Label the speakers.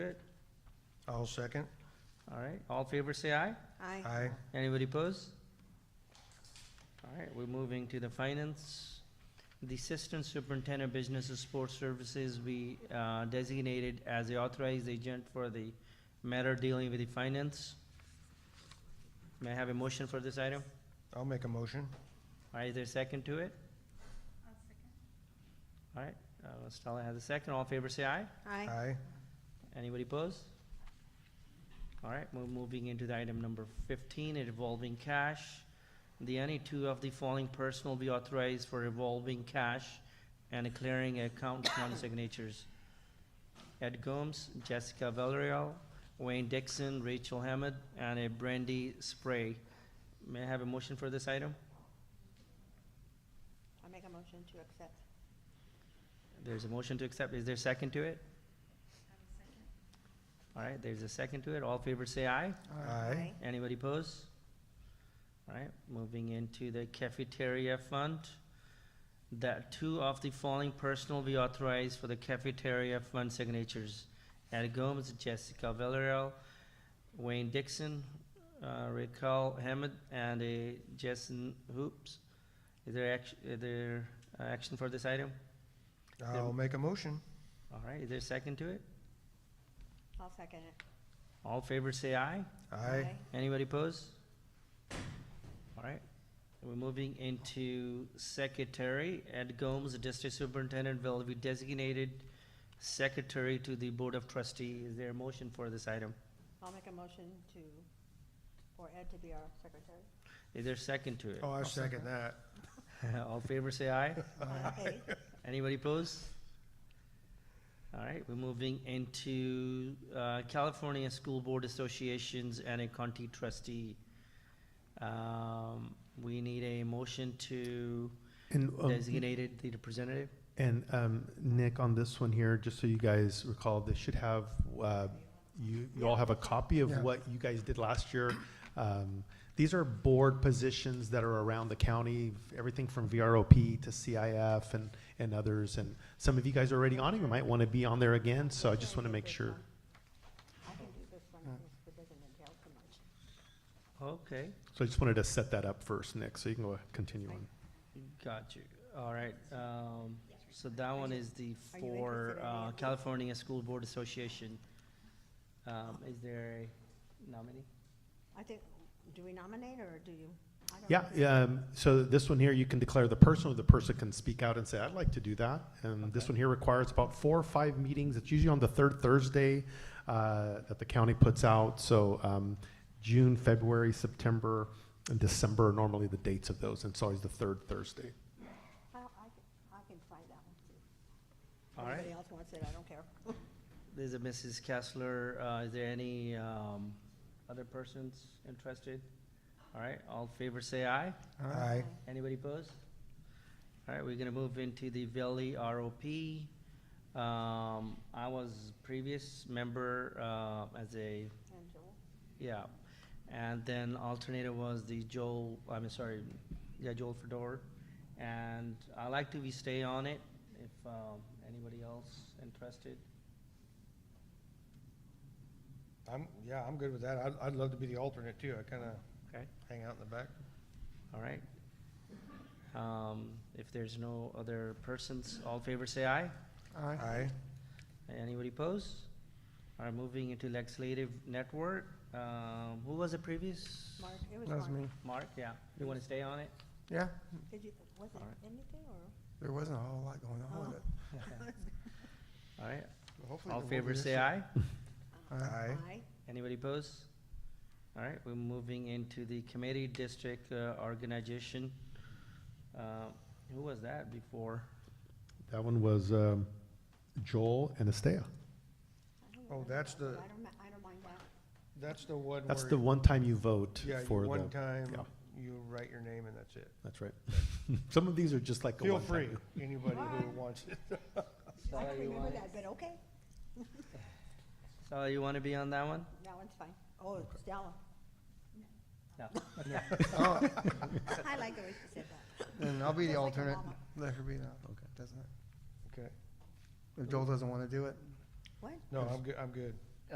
Speaker 1: I'll second.
Speaker 2: All right, all in favor say aye.
Speaker 3: Aye.
Speaker 1: Aye.
Speaker 2: Anybody pose? All right, we're moving to the finance. The Assistant Superintendent Business and Sports Services, we uh, designated as the authorized agent for the matter dealing with the finance. May I have a motion for this item?
Speaker 1: I'll make a motion.
Speaker 2: All right, is there a second to it? All right, uh, Stella has a second. All in favor say aye.
Speaker 3: Aye.
Speaker 1: Aye.
Speaker 2: Anybody pose? All right, we're moving into the item number fifteen, a revolving cash. The any two of the following person will be authorized for revolving cash and declaring account non-signatures. Ed Gomes, Jessica Valerio, Wayne Dixon, Rachel Hammond, and a Brandy Spray. May I have a motion for this item?
Speaker 3: I make a motion to accept.
Speaker 2: There's a motion to accept. Is there a second to it? All right, there's a second to it. All in favor say aye.
Speaker 1: Aye.
Speaker 2: Anybody pose? All right, moving into the cafeteria fund. That two of the following person will be authorized for the cafeteria fund signatures. Ed Gomes, Jessica Villarreal, Wayne Dixon, uh, Raquel Hammond, and a Jason Hoops. Is there action, is there uh, action for this item?
Speaker 1: I'll make a motion.
Speaker 2: All right, is there a second to it?
Speaker 3: I'll second it.
Speaker 2: All in favor say aye.
Speaker 1: Aye.
Speaker 2: Anybody pose? All right, we're moving into secretary. Ed Gomes, the district superintendent, will be designated secretary to the board of trustees. Is there a motion for this item?
Speaker 3: I'll make a motion to, for Ed to be our secretary.
Speaker 2: Is there a second to it?
Speaker 1: Oh, I second that.
Speaker 2: All in favor say aye.
Speaker 3: Aye.
Speaker 2: Anybody pose? All right, we're moving into uh, California School Board Associations and a county trustee. Um, We need a motion to
Speaker 4: And, um,
Speaker 2: designate the representative.
Speaker 4: and um, Nick, on this one here, just so you guys recall, this should have, uh, you, you all have a copy of
Speaker 1: Yeah.
Speaker 4: what you guys did last year. Um, These are board positions that are around the county, everything from VROP to CIF and, and others. And some of you guys are already on it, you might want to be on there again, so I just want to make sure.
Speaker 3: I can do this one, because it doesn't entail too much.
Speaker 2: Okay,
Speaker 4: So I just wanted to set that up first, Nick, so you can go continue on.
Speaker 2: got you. All right, um, so that one is the
Speaker 3: Are you
Speaker 2: for
Speaker 3: interested in
Speaker 2: uh,
Speaker 3: it?
Speaker 2: California School Board Association. Um, Is there a nominee?
Speaker 3: I think, do we nominate, or do you? I don't
Speaker 4: Yeah,
Speaker 3: know.
Speaker 4: um, so this one here, you can declare the person, or the person can speak out and say, I'd like to do that. And this one here requires about four or five meetings. It's usually on the third Thursday, uh, that the county puts out. So, um, June, February, September, and December are normally the dates of those, and it's always the third Thursday.
Speaker 3: I, I can- I can find that one, too.
Speaker 2: All right.
Speaker 3: Anybody else wants it, I don't care.
Speaker 2: There's a Mrs. Kessler, uh, is there any, um, other persons interested? All right, all in favor say aye.
Speaker 1: Aye.
Speaker 2: Anybody pose? All right, we're gonna move into the Valley ROP. Um, I was previous member, uh, as a,
Speaker 3: And Joel?
Speaker 2: yeah. And then alternative was the Joel, I'm sorry, yeah, Joel Fedor. And I like to be stay on it if, um, anybody else interested.
Speaker 1: I'm, yeah, I'm good with that. I'd, I'd love to be the alternate too. I kinda
Speaker 2: Okay.
Speaker 1: hang out in the back.
Speaker 2: All right. Um, if there's no other persons, all in favor say aye.
Speaker 1: Aye.
Speaker 2: Anybody pose? All right, moving into legislative network. Um, who was the previous?
Speaker 3: Mark, it was Mark.
Speaker 2: Mark, yeah. You want to stay on it?
Speaker 1: Yeah,
Speaker 3: Did you, was it
Speaker 2: All right.
Speaker 3: anything, or?
Speaker 1: there wasn't a whole lot going
Speaker 3: on with it.
Speaker 2: All right,
Speaker 1: Oh. Well, hopefully
Speaker 2: all
Speaker 1: there won't
Speaker 2: in favor
Speaker 1: be this
Speaker 2: say
Speaker 1: year.
Speaker 2: aye.
Speaker 1: Aye.
Speaker 3: Aye.
Speaker 2: Anybody pose? All right, we're moving into the committee district uh, organization. Uh, who was that before?
Speaker 4: That one was, um, Joel and Estea.
Speaker 3: I don't
Speaker 1: Oh,
Speaker 3: remember
Speaker 1: that's
Speaker 3: that one.
Speaker 1: the-
Speaker 3: I don't, ma- I don't mind that.
Speaker 1: That's the one where.
Speaker 4: That's the one time you vote
Speaker 1: Yeah, you-
Speaker 4: for
Speaker 1: one
Speaker 4: the,
Speaker 1: time,
Speaker 4: yeah.
Speaker 1: you write your name and that's it.
Speaker 4: that's right. Some of these are just like a
Speaker 1: Feel
Speaker 4: one time.
Speaker 1: free, anybody who
Speaker 3: Alright.
Speaker 1: wants it.
Speaker 3: I
Speaker 2: Sally,
Speaker 3: don't
Speaker 2: you
Speaker 3: remember
Speaker 2: want-
Speaker 3: that, but okay,
Speaker 2: Sally, you want to be on that one?
Speaker 3: that one's fine. Oh, Stella,
Speaker 2: No. Oh.
Speaker 3: I like the way she said that.
Speaker 5: Then I'll be the
Speaker 3: Just like your
Speaker 5: alternate.
Speaker 3: mama.
Speaker 5: Let her be the,
Speaker 4: Okay.
Speaker 5: doesn't it?
Speaker 1: Okay,
Speaker 5: If Joel doesn't want to do it,
Speaker 3: What?
Speaker 1: no, I'm good, I'm good.